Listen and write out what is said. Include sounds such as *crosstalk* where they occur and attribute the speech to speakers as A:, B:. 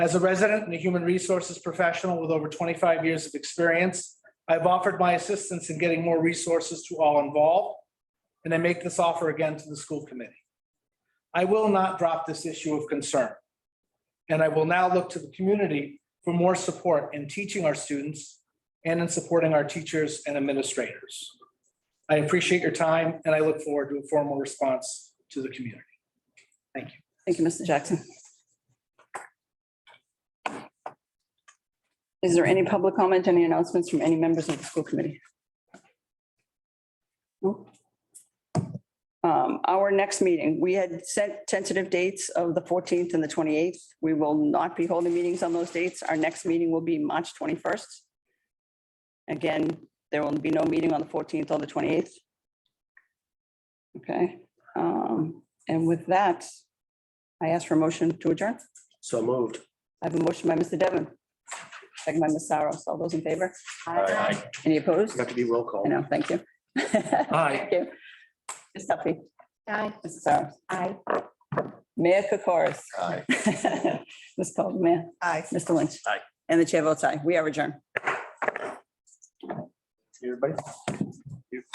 A: As a resident and a human resources professional with over twenty-five years of experience, I've offered my assistance in getting more resources to all involved, and I make this offer again to the school committee. I will not drop this issue of concern. And I will now look to the community for more support in teaching our students and in supporting our teachers and administrators. I appreciate your time, and I look forward to a formal response to the community.
B: Thank you, Mr. Jackson. Is there any public comment, any announcements from any members of the school committee? No. Um, Our next meeting, we had set tentative dates of the 14th and the 28th. We will not be holding meetings on those dates. Our next meeting will be March 21st. Again, there will be no meeting on the 14th or the 28th. Okay, um, and with that, I ask for a motion to adjourn.
C: So moved.
B: I have a motion by Mr. Devon. Second by Ms. Saros. All those in favor?
C: Aye.
B: Any opposed?
C: Got to be roll
B: I
C: call.
B: know, thank you.
C: Aye.
B: Thank you. Ms. Duffy,
D: Aye.
B: Mrs. Saros.
D: Aye.
B: Mayor Kokoris. *laughs*
C: Aye.
B: Ms. Caldwell,
D: Aye.
B: Mr. Lynch.
C: Aye.
B: And the chair votes aye. We are adjourned.
C: Everybody?